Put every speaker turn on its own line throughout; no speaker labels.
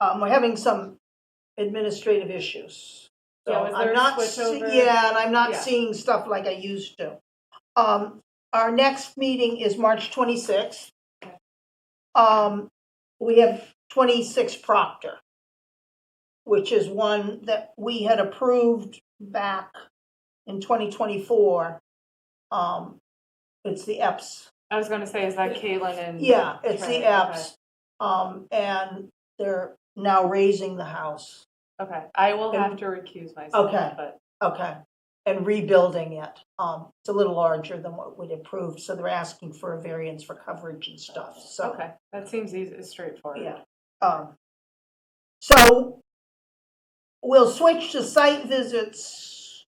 um, we're having some administrative issues. So
Yeah, was
I'm
there a
not
switch
see-
over?
Yeah, and I'm not
Yeah.
seeing stuff like I used to. Um, our next meeting is March twenty-sixth. Um, we have twenty-six Proctor, which is one that we had approved back in twenty twenty-four. Um, it's the EPS
I was gonna say, is that Caitlin and?
yeah, it's the
Right,
apps, um, and they're now raising the house,
Okay, Okay. I will
And-
have to recuse myself,
Okay.
but,
okay, and rebuilding it. Um, it's a little larger than what we'd approved, so they're asking for a variance for coverage and stuff, so,
okay, that seems easy, straightforward.
yeah. Um, so we'll switch to site visits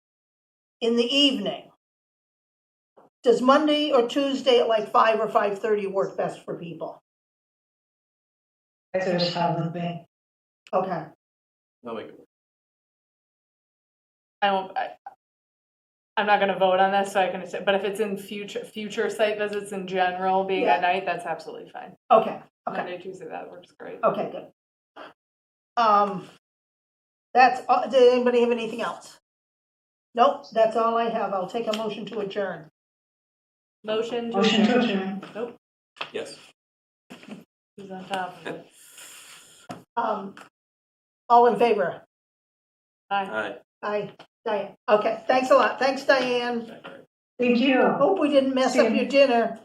in the evening. Does Monday or Tuesday at like five or five-thirty work best for people?
That's a problem with me.
Okay.
No, we can.
I don't, I, I'm not gonna vote on this, so I can, say- but if it's in future, future site visits in general, being
Yeah.
at night, that's absolutely fine.
Okay, okay. Oh.
Monday, Tuesday, that works great.
Okay, good. Um, that's, all- did anybody have anything else? Nope, that's all I have. I'll take a motion to adjourn.
Motion to
Motion to
adjourn,
adjourn.
Yes.
who's on top of it?
Um, all in favor?
Aye.
Aye.
Aye, Diane. Okay, thanks a lot. Thanks, Diane.
Thank you.
Hope we didn't mess up your dinner.